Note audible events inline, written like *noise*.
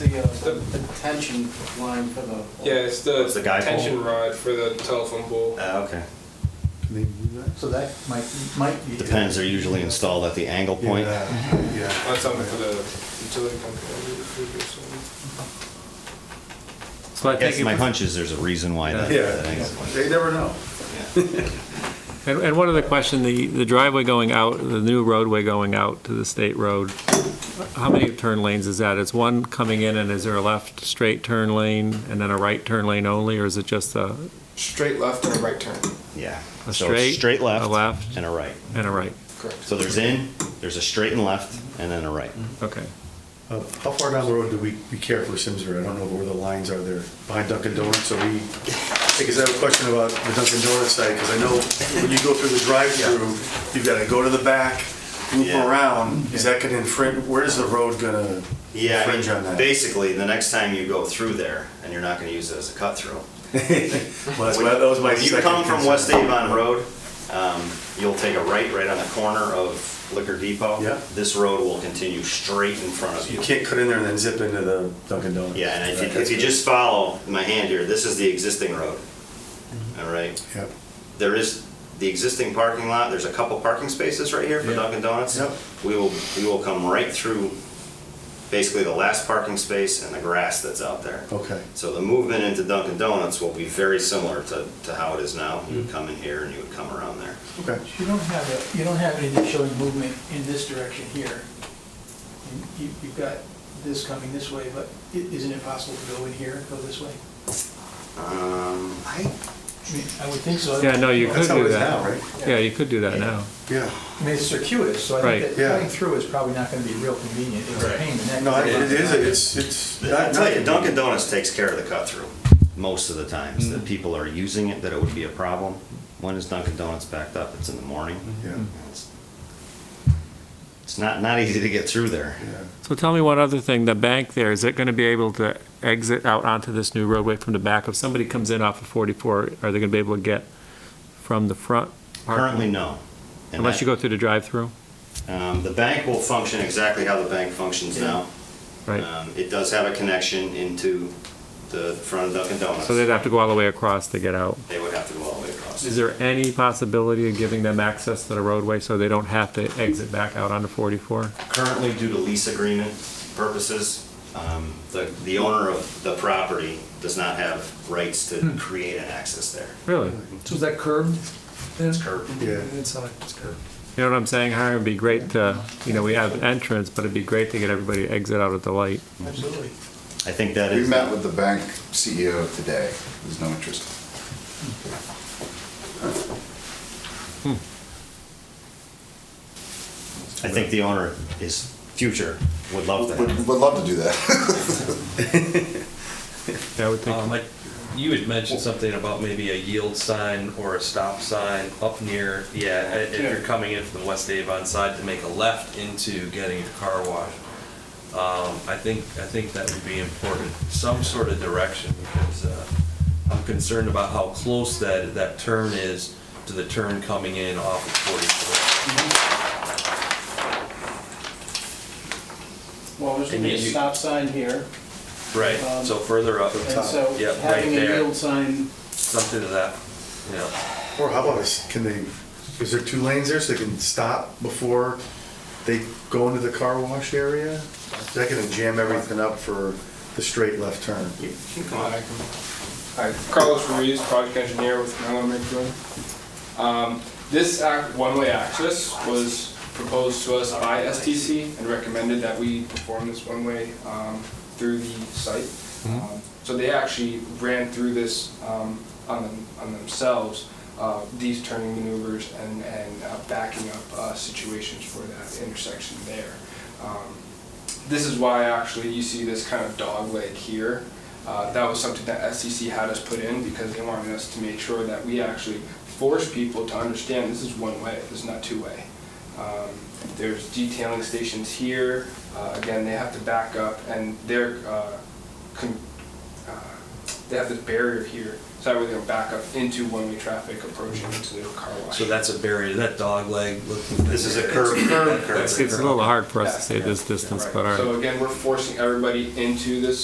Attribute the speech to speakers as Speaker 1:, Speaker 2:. Speaker 1: the,
Speaker 2: The tension line for the.
Speaker 1: yeah, it's the,
Speaker 3: It's the guy pole?
Speaker 1: tension rod for the telephone pole.
Speaker 3: Uh, okay.
Speaker 4: Maybe do that?
Speaker 5: So that might, might be.
Speaker 3: Depends, they're usually installed at the angle point.
Speaker 4: Yeah, yeah.
Speaker 1: That's something for the utility company. I believe, or something.
Speaker 6: So I think,
Speaker 3: Yes, my
Speaker 6: if-
Speaker 3: hunch is there's a reason why that. that
Speaker 4: Yeah,
Speaker 3: angle point.
Speaker 4: they never know.
Speaker 6: and and one other question, the the driveway going out, the new roadway going out to the state road, how many turn lanes is that? Is one coming in and is there a left straight turn lane and then a right turn lane only, or is it just a,
Speaker 1: Straight left and a right turn.
Speaker 3: Yeah.
Speaker 6: A
Speaker 3: So
Speaker 6: straight,
Speaker 3: Straight
Speaker 6: a
Speaker 3: left.
Speaker 6: left.
Speaker 3: And a right.
Speaker 6: and a right?
Speaker 1: Correct.
Speaker 3: So there's in, there's a straight and left, and then a right.
Speaker 6: Okay.
Speaker 4: Uh, How far down the road do we, we care for Simsbury? I don't know where the lines are there, behind Dunkin' Donuts, so we, because I have a question about the Dunkin' Donuts side, because I know when you go through the drive-through, you've got to go to the back, loop
Speaker 3: Yeah.
Speaker 4: around, is that going to infringe, where is the road going to
Speaker 3: Yeah, I
Speaker 4: infringe on
Speaker 3: mean,
Speaker 4: that?
Speaker 3: basically, the next time you go through there, and you're not gonna use it as a cut through.
Speaker 4: *laughs* Well, that's my- that was my
Speaker 3: If you
Speaker 4: second
Speaker 3: come from
Speaker 4: concern.
Speaker 3: West Avon Road, um, you'll take a right, right on the corner of Liquor Depot.
Speaker 4: Yeah.
Speaker 3: This road will continue straight in front of
Speaker 4: You
Speaker 3: you.
Speaker 4: can't cut in there and then zip into the Dunkin' Donuts.
Speaker 3: Yeah, and if
Speaker 4: Okay.
Speaker 3: you, if you just follow my hand here, this is the existing road.
Speaker 4: Mm-hmm.
Speaker 3: All right?
Speaker 4: Yeah.
Speaker 3: There is the existing parking lot, there's a couple parking spaces right here for Dunkin' Donuts.
Speaker 4: Yep.
Speaker 3: We will, we will come right through basically the last parking space and the grass that's out there.
Speaker 4: Okay.
Speaker 3: So the movement into Dunkin' Donuts will be very similar to, to how it is now.
Speaker 4: Mm-hmm.
Speaker 3: You would come in here and you would come around there.
Speaker 4: Okay.
Speaker 5: You don't have, a- you don't have anything showing movement in this direction here. You- you- You've got this coming this way, but i- isn't it possible to go in here, go this way?
Speaker 3: Um, I,
Speaker 5: I mean, I would think so.
Speaker 6: Yeah, no, you
Speaker 4: That's
Speaker 6: could
Speaker 4: how it
Speaker 6: do
Speaker 4: is now,
Speaker 6: that.
Speaker 4: right?
Speaker 6: Yeah, you could do that now.
Speaker 4: Yeah.
Speaker 5: I mean, it's circuitous, so I
Speaker 6: Right.
Speaker 5: think that
Speaker 4: Yeah.
Speaker 5: cutting through is probably not going to be real convenient. It's a pain in the neck.
Speaker 4: No, it it is, it's, it's.
Speaker 3: I'll tell you, Dunkin' Donuts takes care of the cut through most of the times.
Speaker 6: Mm-hmm.
Speaker 3: That people are using it, that it would be a problem. When is Dunkin' Donuts backed up? It's in the morning.
Speaker 6: Mm-hmm.
Speaker 4: Yeah.
Speaker 3: It's- It's not, not easy to get through there.
Speaker 4: Yeah.
Speaker 6: So tell me one other thing, the bank there, is it going to be able to exit out onto this new roadway from the back? If somebody comes in off of 44, are they going to be able to get from the front? parking?
Speaker 3: Currently, no. And
Speaker 6: Unless
Speaker 3: that-
Speaker 6: you go through the drive-through,
Speaker 3: Um, the bank will function exactly how the bank functions now.
Speaker 6: right?
Speaker 3: Um, it does have a connection into the front of Dunkin' Donuts.
Speaker 6: So they'd have to go all the way across to get out.
Speaker 3: They would have to go all the way across.
Speaker 6: Is there any possibility of giving them access to the roadway so they don't have to exit back out onto 44?
Speaker 3: Currently, due to lease agreement purposes, um, the, the owner of the property does not have rights to create an access there.
Speaker 6: Really?
Speaker 7: So is that curbed? It's
Speaker 3: Curb.
Speaker 4: Yeah.
Speaker 7: Inside, it's curbed.
Speaker 6: You know what I'm saying, Hiram? It'd be great to, you know, we have an entrance, but it'd be great to get everybody to exit out at the light.
Speaker 5: Absolutely.
Speaker 3: I think that
Speaker 8: We
Speaker 3: is,
Speaker 8: met with the bank CEO today. There's no interest.
Speaker 3: I think the owner, his future, would love
Speaker 8: Would,
Speaker 3: that.
Speaker 8: would love to do that. *laughs*
Speaker 6: Yeah, I would think,
Speaker 9: Um, like, you had mentioned something about maybe a yield sign or a stop sign up near, yeah, i- if you're coming in from the West Avon side to make a left into getting your car washed. Um, I think, I think that would be important, some sort of direction, because, uh, I'm concerned about how close that, that turn is to the turn coming in off of forty-four.
Speaker 2: Well, there's gonna be a
Speaker 9: And you-
Speaker 2: stop sign here,
Speaker 9: Right, so further up,
Speaker 2: Um, and so
Speaker 9: yeah, right
Speaker 2: having a
Speaker 9: there,
Speaker 2: yield sign,
Speaker 9: something to that, you know.
Speaker 4: Or how about this, can they, is there two lanes there so they can stop before they go into the car wash area? Is that gonna jam everything up for the straight left turn?
Speaker 1: Hi, Carlos Ruiz, project engineer with Maryland Micro. Um, This ac- one-way access was proposed to us by STC and recommended that we perform this one-way um, through the site. Um, So they actually ran through this um, on them- on themselves, uh, these turning maneuvers and and uh, backing up uh, situations for that intersection there. Um, This is why actually you see this kind of dog leg here. Uh, That was something that SEC had us put in because they wanted us to make sure that we actually force people to understand this is one way, this is not two way. Um, There's detailing stations here, Uh, again, they have to back up and they're, uh, con- uh, they have this barrier here, so that way they don't back up into one-way traffic approaching into the car wash.
Speaker 9: So that's a barrier, that dog leg looking.
Speaker 3: This is a curb, curb, curb.
Speaker 6: it's it's a little hard for us to say this distance,
Speaker 1: Right.
Speaker 6: but our.
Speaker 1: So again, we're forcing everybody into this